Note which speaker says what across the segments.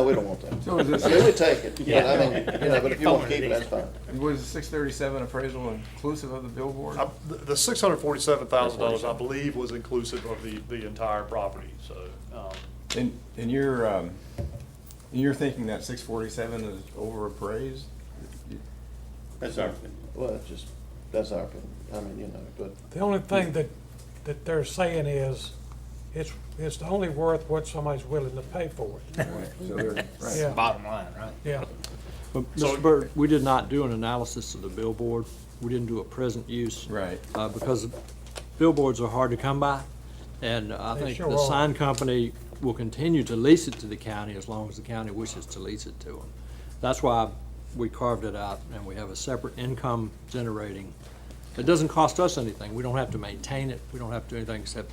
Speaker 1: No, we don't want that.
Speaker 2: So is this-
Speaker 1: I mean, we take it, but I mean, you know, but if you
Speaker 3: Yeah.
Speaker 1: want to keep it, that's fine.
Speaker 2: Was the six thirty-seven appraisal inclusive of the billboard?
Speaker 4: I- The the $647,000, I believe, was inclusive of the, the entire property, so. um,
Speaker 2: And, and you're, um, and you're thinking that six forty-seven is over appraised?
Speaker 3: That's our opinion.
Speaker 1: Well, it's just, that's our opinion. I mean, you know, but
Speaker 5: The only thing that, that they're saying is, it's, it's only worth what somebody's willing to pay for it.
Speaker 2: So they're, right.
Speaker 5: Yeah,
Speaker 3: Bottom line, right?
Speaker 5: yeah.
Speaker 6: But,
Speaker 4: So-
Speaker 6: Mr. Burt, we did not do an analysis of the billboard. We didn't do a present use.
Speaker 2: Right.
Speaker 6: Uh, because billboards are hard to come by, and I
Speaker 5: They
Speaker 6: think
Speaker 5: sure
Speaker 6: the
Speaker 5: are.
Speaker 6: sign company will continue to lease it to the county as long as the county wishes to lease it to them. That's why we carved it out, and we have a separate income generating. It doesn't cost us anything. We don't have to maintain it. We don't have to do anything except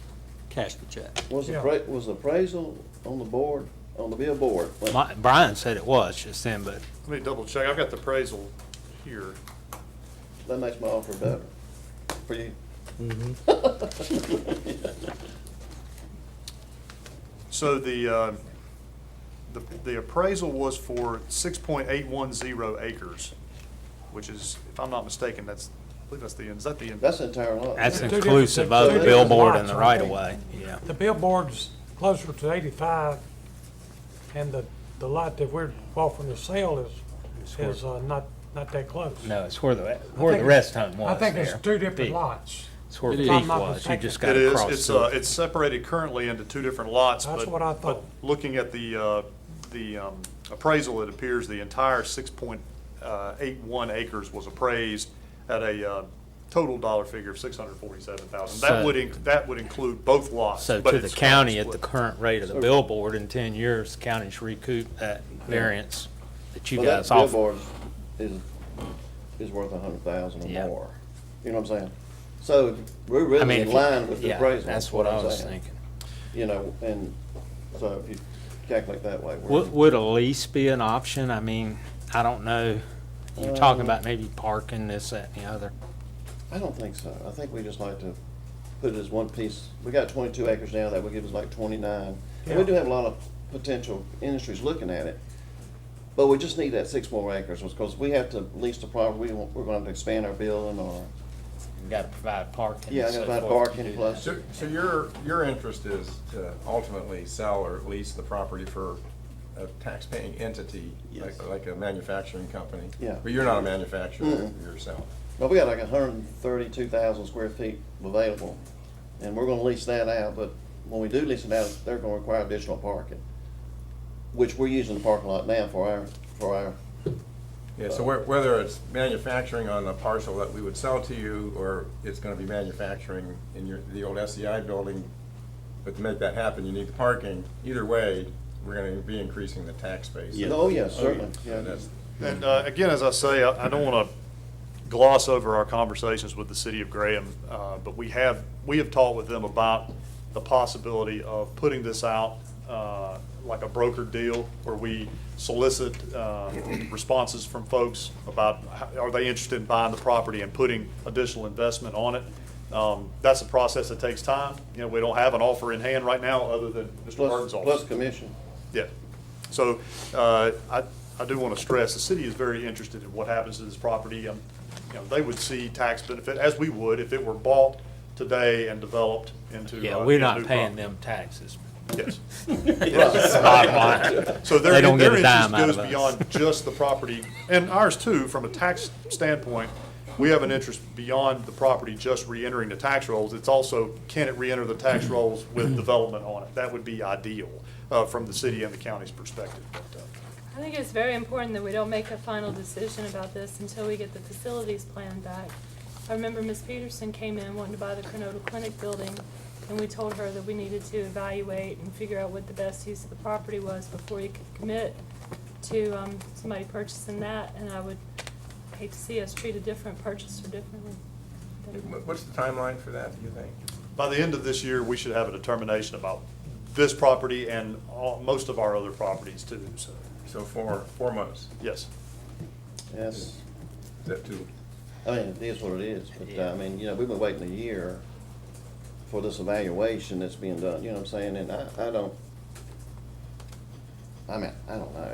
Speaker 6: cash the check.
Speaker 1: was
Speaker 5: Yeah.
Speaker 1: appra- was appraisal on the board, on the billboard? Well,
Speaker 7: Mi- Brian said it was just then, but
Speaker 4: Let me double check. I've got the appraisal here.
Speaker 1: That makes my offer better Mm-hmm. for you.
Speaker 4: So the, uh, the the appraisal was for 6.810 acres, which is, if I'm not mistaken, that's, I believe that's the, is that the? end?
Speaker 1: That's the entire lot.
Speaker 7: that's
Speaker 5: Two different
Speaker 7: inclusive
Speaker 5: things.
Speaker 7: of the
Speaker 1: Two different
Speaker 7: billboard and
Speaker 5: lots,
Speaker 7: the
Speaker 5: I
Speaker 7: right
Speaker 5: think.
Speaker 7: of way, yeah.
Speaker 5: The billboard's closer to eighty-five, and the, the lot that we're offering to sell is, is uh, not, not that close.
Speaker 7: No, it's where the,
Speaker 5: I
Speaker 7: where the
Speaker 5: think
Speaker 7: rest
Speaker 5: it's-
Speaker 7: home was
Speaker 5: I think
Speaker 7: there.
Speaker 5: it's two different
Speaker 7: Peak.
Speaker 5: lots.
Speaker 7: It's where
Speaker 6: It
Speaker 7: the
Speaker 6: is.
Speaker 7: peak
Speaker 6: I'm
Speaker 5: not
Speaker 7: was, you
Speaker 5: mistaken.
Speaker 7: just
Speaker 4: It
Speaker 7: gotta
Speaker 4: is,
Speaker 7: cross
Speaker 4: it's,
Speaker 7: through.
Speaker 4: uh,
Speaker 7: it.
Speaker 4: it's separated currently into two different lots, but.
Speaker 5: That's what I
Speaker 4: but
Speaker 5: thought.
Speaker 4: Looking at the, uh, the um, appraisal, it appears the entire six point uh, eight one acres was appraised at a uh, total dollar figure of six hundred forty-seven thousand. That
Speaker 7: So-
Speaker 4: would, inc- that would include both lots.
Speaker 7: So
Speaker 4: but
Speaker 7: to the
Speaker 4: it's
Speaker 7: county at the
Speaker 4: split.
Speaker 7: current rate of the billboard, in ten years, the county's recoup that variance that you
Speaker 1: Well, that
Speaker 7: guys offer.
Speaker 1: billboard is, is worth a hundred thousand or
Speaker 7: Yeah.
Speaker 1: more. You know what I'm saying? So we're
Speaker 7: I
Speaker 1: really
Speaker 7: mean,
Speaker 1: in
Speaker 7: if you-
Speaker 1: line with the
Speaker 7: yeah,
Speaker 1: appraisal.
Speaker 7: That's what
Speaker 1: I'm
Speaker 7: I was
Speaker 1: saying.
Speaker 7: thinking.
Speaker 1: You know, and so if you calculate that way, we're.
Speaker 7: Would, would a lease be an option? I mean, I don't know. You're talking about maybe parking this, that, and the other.
Speaker 1: I don't think so. I think we just like to put it as one piece. We got twenty-two acres now, that would give us like twenty-nine. And we
Speaker 5: Yeah.
Speaker 1: do have a lot of potential industries looking at it. But we just need that six more acres, because we have to lease the property, we want, we're gonna have to expand our building or,
Speaker 7: You gotta provide parking.
Speaker 1: yeah,
Speaker 7: and
Speaker 1: I gotta
Speaker 7: so
Speaker 1: buy
Speaker 7: forth
Speaker 1: parking
Speaker 7: to do that.
Speaker 1: plus.
Speaker 2: So, so your, your interest is to ultimately sell or lease the property for a taxpaying entity, like,
Speaker 1: Yes.
Speaker 2: like a manufacturing company?
Speaker 1: Yeah.
Speaker 2: But you're not a manufacturer
Speaker 1: Mm-mm.
Speaker 2: yourself?
Speaker 1: But we got like hundred and thirty-two thousand square feet available, and we're gonna lease that out, but when we do lease it out, they're gonna require additional parking, which we're using the parking lot now for our, for our
Speaker 2: Yeah, so whe- whether it's manufacturing on a parcel that we would sell to you, or it's gonna be manufacturing in your, the old SEI building, but to make that happen, you need the parking. Either way, we're gonna be increasing the tax base.
Speaker 1: Yeah. Oh, yes, certainly, yeah.
Speaker 2: And that's-
Speaker 4: And uh, again, as I say, I I don't want to gloss over our conversations with the city of Graham, uh, but we have, we have talked with them about the possibility of putting this out uh, like a broker deal where we solicit uh, responses from folks about how- are they interested in buying the property and putting additional investment on it. Um, That's a process that takes time. You know, we don't have an offer in hand right now other than Mr.
Speaker 1: plus,
Speaker 4: Burton's offer.
Speaker 1: plus commission.
Speaker 4: Yeah. So uh, I I do want to stress, the city is very interested in what happens to this property. Um, You know, They would see tax benefit, as we would, if it were bought today and developed into.
Speaker 7: Yeah,
Speaker 4: uh,
Speaker 7: we're
Speaker 4: into
Speaker 7: not
Speaker 4: new
Speaker 7: paying
Speaker 4: property.
Speaker 7: them taxes.
Speaker 4: Yes.
Speaker 7: Bottom line.
Speaker 4: So their,
Speaker 7: They don't
Speaker 4: their
Speaker 7: get a
Speaker 4: interest
Speaker 7: dime out
Speaker 4: goes
Speaker 7: of us.
Speaker 4: beyond just the property, and ours too, from a tax standpoint. We have an interest beyond the property just re-entering the tax rolls. It's also, can it re-enter the tax rolls with development on it? That would be ideal uh, from the city and the county's perspective. But, uh,
Speaker 8: I think it's very important that we don't make a final decision about this until we get the facilities plan back. I remember Ms. Peterson came in wanting to buy the Cronuta Clinic building, and we told her that we needed to evaluate and figure out what the best use of the property was before you could commit to, um, somebody purchasing that, and I would hate to see us treat a different purchaser differently. than-
Speaker 2: Wha- What's the timeline for that, do you think?
Speaker 4: By the end of this year, we should have a determination about this property and all, most of our other properties too, so,
Speaker 2: So four, four months,
Speaker 4: yes.
Speaker 1: Yes,
Speaker 2: is that too?
Speaker 1: I mean, it is what it is, but, uh, I mean, you know, we've been waiting a year for this evaluation that's being done, you know what I'm saying, and I, I don't, I mean, I don't know.